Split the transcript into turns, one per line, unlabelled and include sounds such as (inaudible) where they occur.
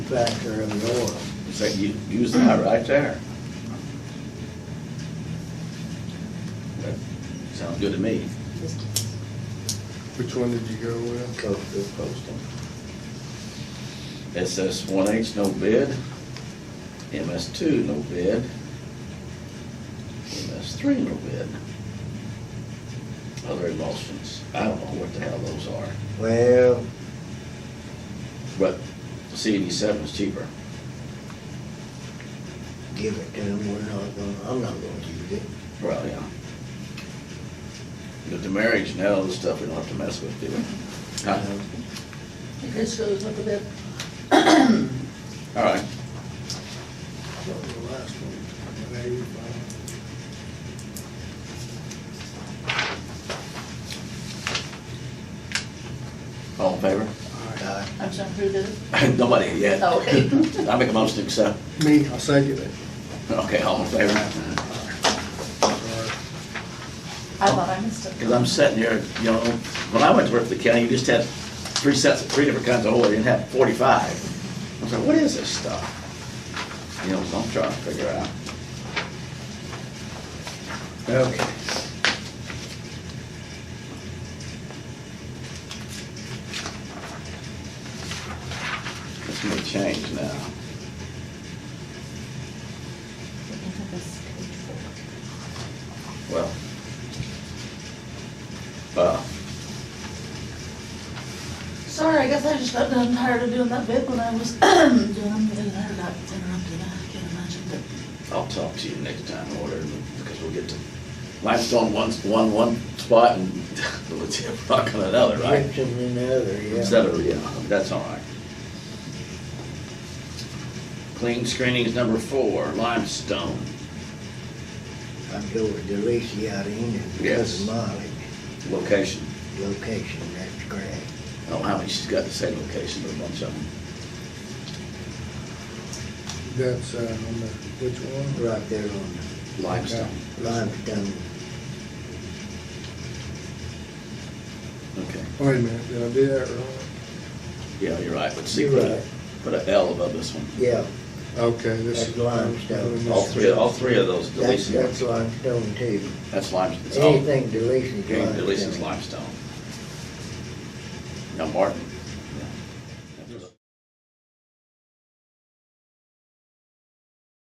factor of the oil.
So you use that right there. That Sounds good to me.
Which one did you go with?
Coastal. Coastal.
SS one H, no bid. MS two, no bid. MS three, no bid. Other emulsions, I don't know what the hell those are,
Well,
but CD seven is cheaper.
give it to them, we're not gonna, I'm not gonna use it.
Well, yeah. But the marriage and all this stuff, we don't have to mess with, do we? Huh?
This shows up a bit.
All right,
I don't know the last one. Maybe we find-
all in favor?
Uh,
I'm sorry, who did it?
(laughs) Nobody yet.
Oh, okay.
(laughs) I make a motion to accept.
Me, I'll second it.
Okay, all in favor?
I thought I missed it.
Because I'm sitting here, you know, when I went to work for the county, you just had three sets, three different kinds of oil, you didn't have forty-five. I was like, what is this stuff? You know, so I'm trying to figure out. Okay. This may change now. Well. Uh,
Sorry, I guess I just got done tired of doing that bit when I was (clears throat) doing, doing that, got interrupted, I can't imagine, but
I'll talk to you next time, or whatever, because we'll get to limestone one's one, one spot and (laughs) lithium rock on another, right?
Gypsum in the other, yeah.
Instead of, yeah, that's all right. Clean screening is number four, limestone.
I'm going with Delisi out of Enid because
Yes.
of mileage,
Location.
location, that's correct.
I don't know how many she's got to say location, but a bunch of them.
That's, uh, on the, which one?
Right there on
Limestone.
the limestone.
Okay.
Wait a minute, did I do that wrong?
Yeah, you're right, but see,
You're
put
right,
a, put a L above this one.
yeah,
Okay, this
That's
is.
limestone.
All three, all three of those
that's,
deletions,
that's limestone too.
that's limestone. It's all-
Anything Delisi's
Okay,
limestone.
Delisi's limestone. Now Martin,